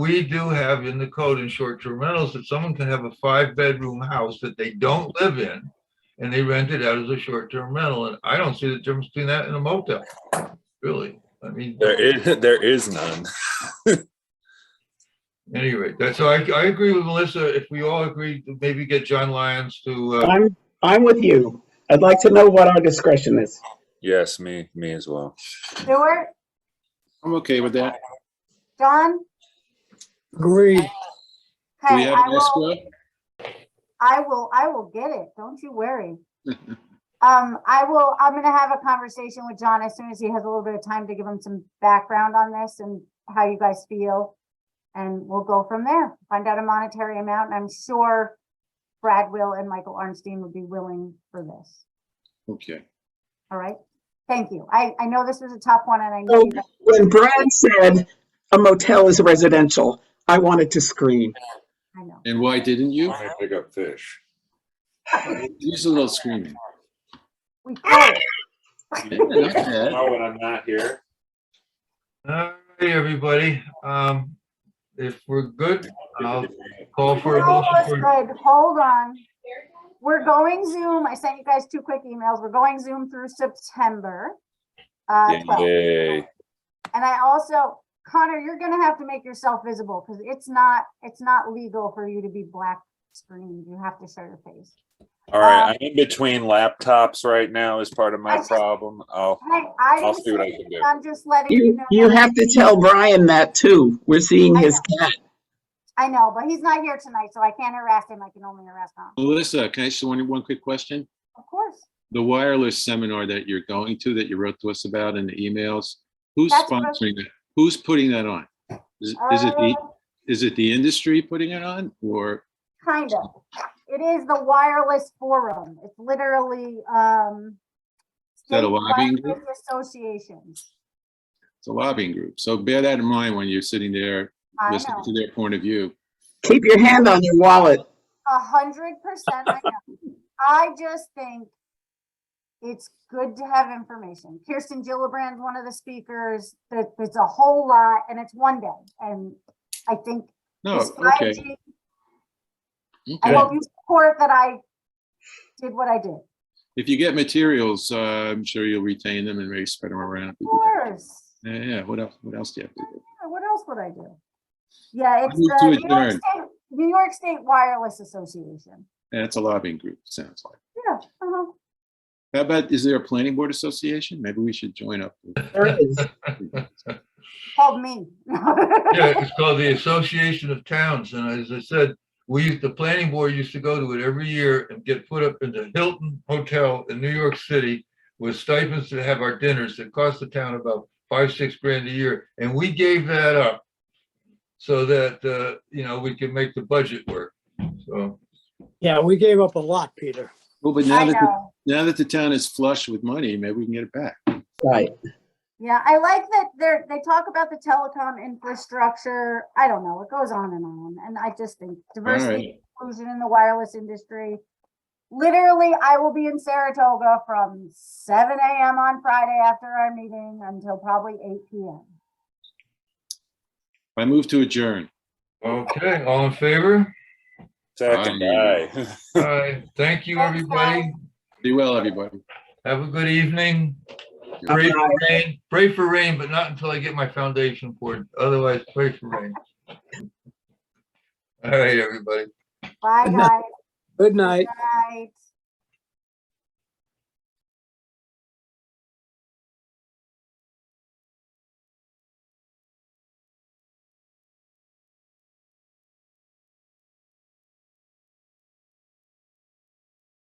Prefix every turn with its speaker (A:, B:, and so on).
A: We do have in the code in short-term rentals that someone can have a five-bedroom house that they don't live in and they rent it out as a short-term rental. And I don't see the difference between that and a motel, really. I mean,
B: There is, there is none.
A: any rate, that's, so I, I agree with Melissa. If we all agree, to maybe get John Lyons to, uh,
C: I'm, I'm with you. I'd like to know what our discretion is.
B: Yes, me, me as well.
D: Stuart,
E: I'm okay with that.
D: John?
F: Agree.
E: Do
D: Hey,
E: we have
D: I
E: an
D: will,
E: escrow?
D: I will, I will get it. Don't you worry. Um, I will, I'm gonna have a conversation with John as soon as he has a little bit of time to give him some background on this and how you guys feel. And we'll go from there, find out a monetary amount. And I'm sure Brad will and Michael Arnstein would be willing for this.
E: Okay.
D: All right? Thank you. I, I know this was a tough one and I know
C: So
D: you guys
C: when Brad said a motel is residential, I wanted to scream.
D: I know.
E: And why didn't you?
F: I pick up fish.
E: Use a little screaming.
D: We could.
E: Yeah, not
D: Oh,
E: bad.
F: Now Oh, when I'm not here.
A: all right, everybody. Um, if we're good,
D: Oh.
A: I'll call for a
D: No,
A: motion
D: that's
A: for,
D: good. Hold on. We're going Zoom. I sent you guys two quick emails. We're going Zoom through September. uh, 12.
B: Yay.
D: And I also, Connor, you're gonna have to make yourself visible because it's not, it's not legal for you to be black screened. You have to show your face. Uh,
B: All right, I'm in between laptops right now is part of
D: I
B: my
D: just-
B: problem. I'll,
D: Hey, I
B: I'll
D: didn't
B: see what
D: say
B: I can do.
D: it. I'm just letting you
C: You,
D: know.
C: you
D: that-
C: have to tell Brian that too. We're seeing his cat.
D: I know, but he's not here tonight, so I can't harass him. I can only harass Connor.
E: Melissa, can I ask you one, one quick question?
D: Of course.
E: The wireless seminar that you're going to, that you wrote to us about in the emails, who's
D: That's what-
E: sponsoring that? Who's putting that on? Is is it e- the,
D: Uh,
E: is it the industry putting it on or?
D: Kind of. It is the wireless forum. It's literally, um. state
E: that a lobbying
D: wireless Associations.
E: It's a lobbying group. So bear that in mind when you're sitting there
D: I
E: listening to
D: know,
E: their point of view.
C: Keep your hand on your wallet.
D: a hundred percent. I know. I just think it's good to have information. Kirsten Gillibrand, one of the speakers, that, it's a whole lot and it's one day. And I think
E: No,
D: this
E: Oh, okay.
D: 5G, I
E: okay.
D: hope you support that I did what I did. Of
E: If you get materials, uh, I'm sure you'll retain them and maybe spread them around.
D: course.
E: Yeah, yeah, what else, what else do you have to do?
D: Yeah, What else would I do? Yeah, it's
E: move
D: the
E: to
D: New York
E: adjourn.
D: State, New York State Wireless Association.
E: And it's a lobbying group, sounds like.
D: Yeah, uh-huh.
E: How about, is there a planning board association? Maybe we should join up.
C: There it is.
D: called me.
A: yeah, it's called the Association of Towns. And as I said, we used, the planning board used to go to it every year and get put up in the Hilton Hotel in New York City with stipends to have our dinners that cost the town about five, six grand a year. And we gave that up so that, uh, you know, we could make the budget work. So,
F: Yeah, we gave up a lot, Peter.
E: Well, but
D: I
E: now that, the-
D: know.
E: now that the town is flush with money, maybe we can get it back.
C: Right.
D: Yeah, I like that they're, they talk about the telecom infrastructure. I don't know, it goes on and on. And I just think diversity, inclusion in the wireless industry. Literally, I will be in Saratoga from seven AM on Friday after our meeting until probably eight PM.
E: I move to adjourn.
A: okay, all in favor?
B: Second,
E: Aye.
B: aye.
A: All right, thank you,
D: Thanks,
A: everybody.
E: Be well, everybody.
A: Have a good evening.
E: You're
A: Pray for rain, pray for rain, but not until I get my foundation poured. Otherwise, pray for rain. All right, everybody.
D: Bye,
F: Good
D: guys.
F: Good night.
D: Good night.